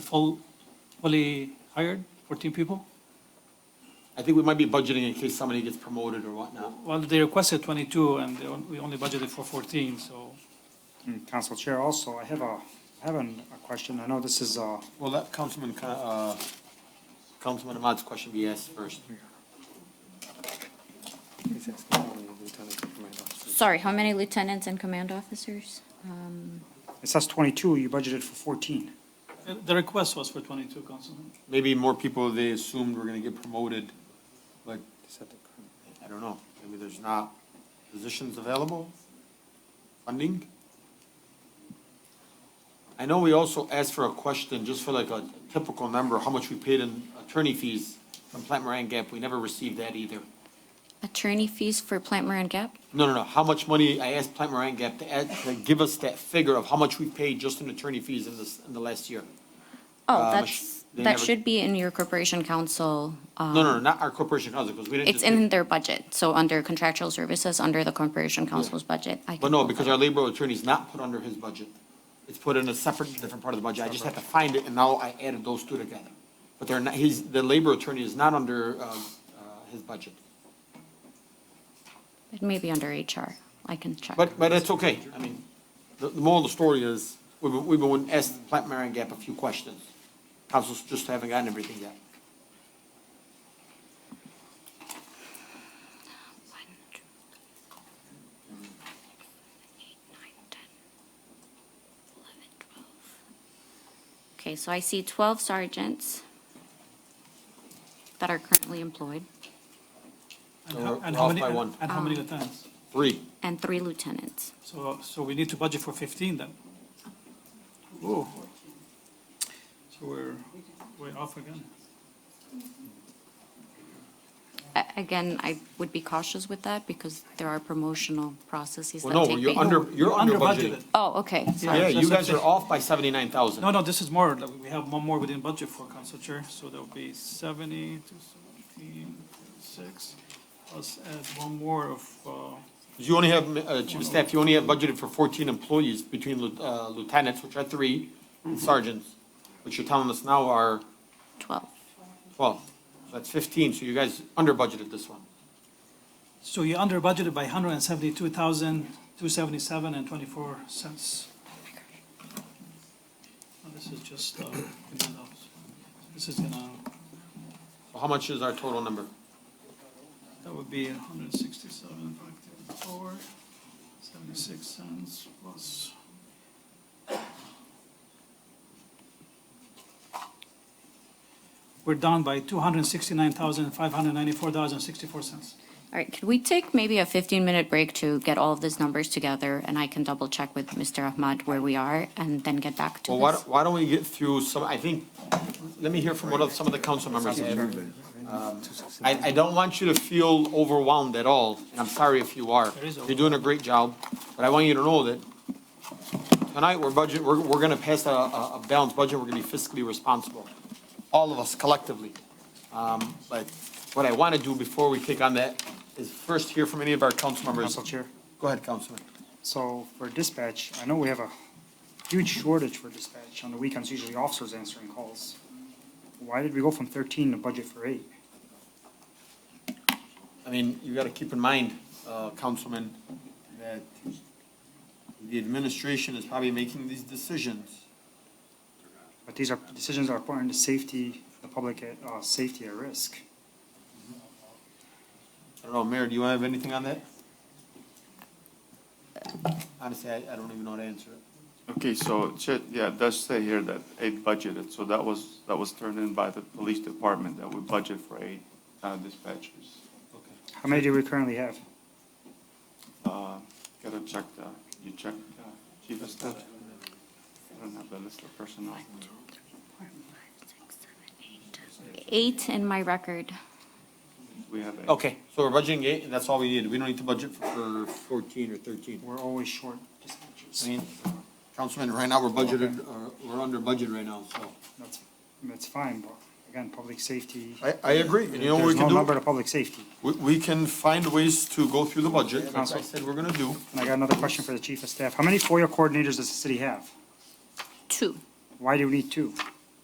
full, fully hired, 14 people? I think we might be budgeting in case somebody gets promoted or whatnot. Well, they requested 22, and they on- we only budgeted for 14, so Mm, Council Chair, also, I have a, I have an- a question. I know this is, uh, Well, let Councilman, Ca- uh, Councilman Ahmad's question be asked first. Sorry, how many lieutenants and command officers? it says 22, you budgeted for 14. uh, the request was for 22, Councilman. Maybe more people they assumed were gonna get promoted, but I don't know. Maybe there's not positions available, funding? I know we also asked for a question, just for like a typical number, how much we paid in attorney fees from Plant Moran Gap. We never received that either. Attorney fees for Plant Moran Gap? No, no, no, how much money, I asked Plant Moran Gap to add, to give us that figure of how much we paid just in attorney fees in this, in the last year. Oh, Um, that's, they that never- should be in your corporation council. uh, No, no, no, not our corporation housing, because we didn't It's just. pay- in their budget, so under contractual services, under the corporation council's budget. I But can no, pull because that our up. labor attorney's not put under his budget. It's put in a separate, different part of the budget. I just had to find it, and now I added those two together. But they're not, he's, the labor attorney is not under, uh, uh, his budget. It may be under HR. I can check. But, but it's okay. I mean, the, the moral of the story is, we've, been- we've been asked Plant Moran Gap a few questions. Council's just haven't gotten everything yet. Okay, so I see 12 sergeants that are currently employed And So how- we're and how off many- by one. And how many lieutenants? Three. and three lieutenants. So, so we need to budget for 15 then. Ooh. So we're, we're off again. A- Again, I would be cautious with that because there are promotional processes that Well, no, take. you're be- under, you're under budgeted. budgeted. Oh, okay, sorry. Yeah, you That's what guys I'm are saying. off by seventy-nine thousand. No, no, this is more, like, we have one more within budget for council chair, so there'll be 70 to 17, 6. Let's add one more of, uh, You only have, uh, chief of staff, you only have budgeted for fourteen employees between lieu- uh, lieutenants, which are three, and sergeants, which you're telling us now are 12. twelve. So that's fifteen, so you guys under budgeted this one. So you're under budgeted by hundred and seventy-two thousand, two seventy-seven and twenty-four cents. This is just, uh, this is gonna, So How much is our total number? that would be hundred and sixty-seven, five fifty-four, seventy-six cents plus. We're down by two hundred and sixty-nine thousand, five hundred and ninety-four dollars and sixty-four cents. All right, could we take maybe a 15-minute break to get all of these numbers together? And I can double-check with Mr. Ahmad where we are and then get back to Well, why, this. don't- why don't we get through some, I think, let me hear from what of, some of the council members have. I, I don't want you to feel overwhelmed at all, and I'm sorry if you are. There is You're doing a great job, but I want you to know that tonight, we're budget, we're, we're gonna pass a, a a balanced budget, we're gonna be fiscally responsible, all of us collectively. Um, but what I wanna do before we take on that is first hear from any of our council members. Council Chair. Go ahead, Councilman. So for dispatch, I know we have a huge shortage for dispatch. On the weekends, usually officers answering calls. Why did we go from 13 to budget for eight? I mean, you gotta keep in mind, uh, Councilman, that the administration is probably making these decisions. But these are, decisions are putting the safety, the public at, uh, safety at risk. I don't know, Mayor, do you have anything on that? Honestly, I, I don't even know how to answer it. Okay, so, Chair- yeah, it does say here that eight budgeted, so that was, that was turned in by the police department, that we budget for eight uh, dispatchers. How many do we currently have? Uh, Gotta check the, you check, uh, chief of staff? I don't have the list of personnel. Eight in my record. We have eight. Okay, so we're budgeting eight, and that's all we need. We don't need to budget for for fourteen or thirteen. We're always short I dispatchers. mean, Councilman, right now, we're budgeted, uh, we're under budget right now, so. That's, that's fine, but again, public safety. I, I agree, and you know what we There's can no number do? to public safety. We, we can find ways to go through the budget, as I said we're gonna do. And I got another question for the chief of staff. How many FOIA coordinators does the city have? Two. Why do we need two?